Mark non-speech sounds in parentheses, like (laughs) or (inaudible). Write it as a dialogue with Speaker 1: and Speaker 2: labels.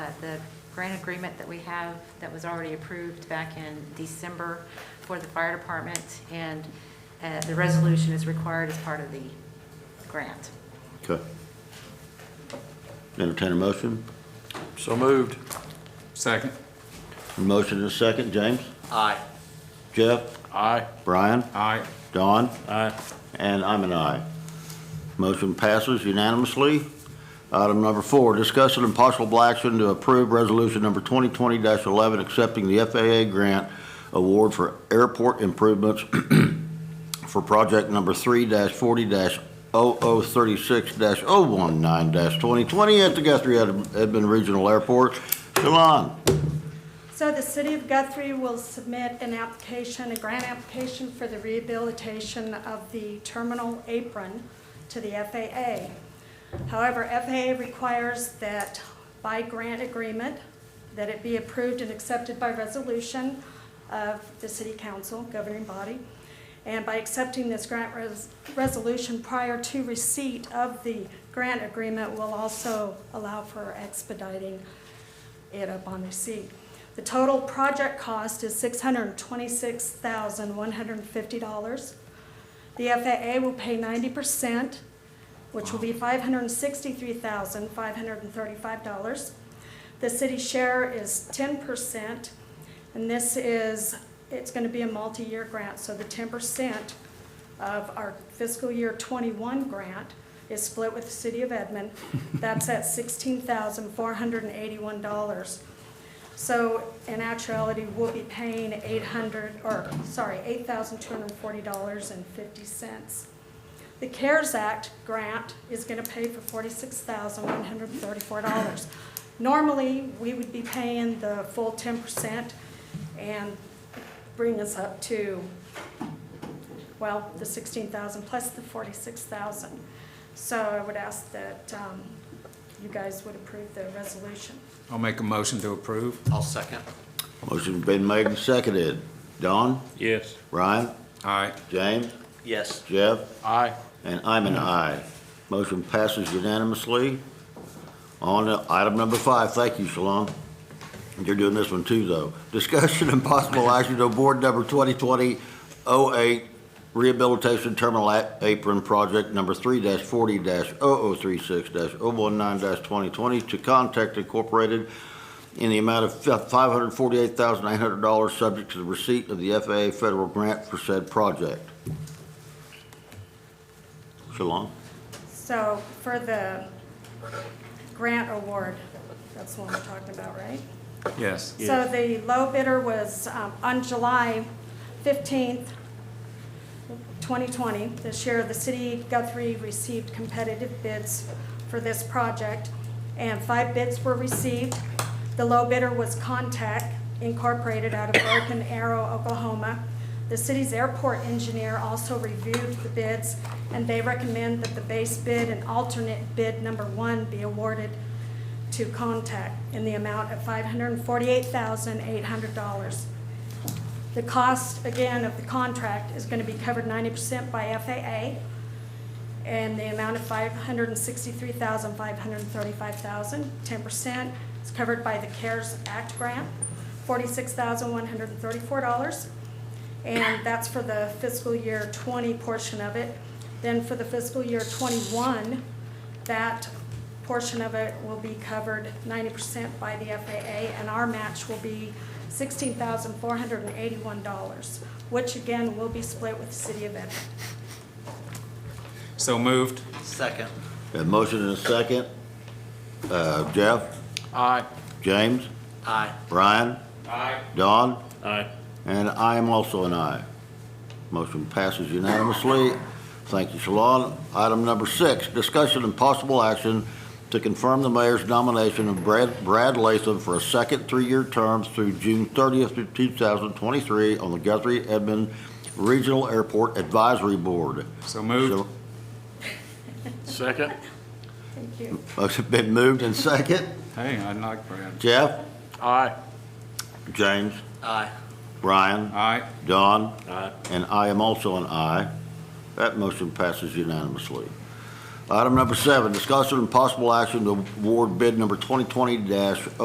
Speaker 1: uh, the grant agreement that we have that was already approved back in December for the fire department, and uh, the resolution is required as part of the grant.
Speaker 2: Okay. Entertain a motion?
Speaker 3: So moved.
Speaker 4: Second.
Speaker 2: A motion and a second. James?
Speaker 3: Aye.
Speaker 2: Jeff?
Speaker 3: Aye.
Speaker 2: Brian?
Speaker 4: Aye.
Speaker 2: Don?
Speaker 3: Aye.
Speaker 2: And I'm an aye. Motion passes unanimously. Item number four, discussion and possible action to approve resolution number 2020-11, accepting the FAA grant award for airport improvements (clears throat) for project number 3-40-0036-019-2020 at the Guthrie Ed- Edmond Regional Airport. Shalon,
Speaker 5: So the city of Guthrie will submit an application, a grant application for the rehabilitation of the terminal apron to the FAA. However, FAA requires that by grant agreement, that it be approved and accepted by resolution of the city council, governing body. And by accepting this grant res- resolution prior to receipt of the grant agreement will also allow for expediting it up on the seat. The total project cost is six hundred and twenty-six thousand, one hundred and fifty dollars. The FAA will pay ninety percent, which will be five hundred and sixty-three thousand, five hundred and thirty-five dollars. The city share is ten percent, and this is, it's gonna be a multi-year grant, so the ten percent of our fiscal year twenty-one grant is split with the city of Edmond. That's at sixteen thousand four hundred and eighty-one dollars. So in actuality, we'll be paying eight hundred, or, sorry, eight thousand two hundred and forty dollars and fifty cents. The CARES Act grant is gonna pay for forty-six thousand one hundred and thirty-four dollars. Normally, we would be paying the full ten percent and bring us up to well, the sixteen thousand plus the forty-six thousand. So I would ask that um, you guys would approve the resolution.
Speaker 4: I'll make a motion to approve.
Speaker 3: I'll second.
Speaker 2: motion's been made and seconded. Don?
Speaker 3: Yes.
Speaker 2: Brian?
Speaker 4: Aye.
Speaker 2: James?
Speaker 3: Yes.
Speaker 2: Jeff?
Speaker 3: Aye.
Speaker 2: And I'm an aye. Motion passes unanimously. On to item number five, thank you, Shalon. You're doing this one too, though. Discussion and possible action to board number 2020-08 Rehabilitation Terminal A- Apron Project Number 3-40-0036-019-2020 to Contact Incorporated in the amount of $548,800, subject to the receipt of the FAA federal grant for said project. Shalon?
Speaker 5: So for the grant award, that's the one we're talking about, right?
Speaker 4: Yes.
Speaker 5: So the low bidder was um, on July fifteenth, twenty twenty. This year, the city of Guthrie received competitive bids for this project, and five bids were received. The low bidder was Contact Incorporated out of Broken Arrow, Oklahoma. The city's airport engineer also reviewed the bids, and they recommend that the base bid and alternate bid number one be awarded to Contact in the amount of five hundred and forty-eight thousand, eight hundred dollars. The cost, again, of the contract is gonna be covered ninety percent by FAA and the amount of five hundred and sixty-three thousand, five hundred and thirty-five thousand, ten percent is covered by the CARES Act grant, forty-six thousand, one hundred and thirty-four dollars. And that's for the fiscal year twenty portion of it. Then for the fiscal year twenty-one, that portion of it will be covered ninety percent by the FAA, and our match will be sixteen thousand four hundred and eighty-one dollars, which again will be split with the city of Edmond.
Speaker 4: So moved.
Speaker 3: Second.
Speaker 2: Got a motion and a second. Uh, Jeff,
Speaker 4: Aye.
Speaker 2: James,
Speaker 3: Aye.
Speaker 2: Brian,
Speaker 4: Aye.
Speaker 2: Don,
Speaker 3: Aye.
Speaker 2: and I am also an aye. Motion passes unanimously. Thank you, Shalon. Item number six, discussion and possible action to confirm the mayor's nomination of Brad, Brad Latham for a second three-year term through June 30th, of 2023 on the Guthrie Edmond Regional Airport Advisory Board. (laughs)
Speaker 4: So moved.
Speaker 3: Second.
Speaker 5: Thank you.
Speaker 2: Motion been moved and second.
Speaker 4: Hey, I like Brad.
Speaker 2: Jeff,
Speaker 3: Aye.
Speaker 2: James,
Speaker 3: Aye.
Speaker 2: Brian,
Speaker 4: Aye.
Speaker 2: Don,
Speaker 3: Aye.
Speaker 2: and I am also an aye. That motion passes unanimously. Item number seven, discussion and possible action to award bid number 2020-0.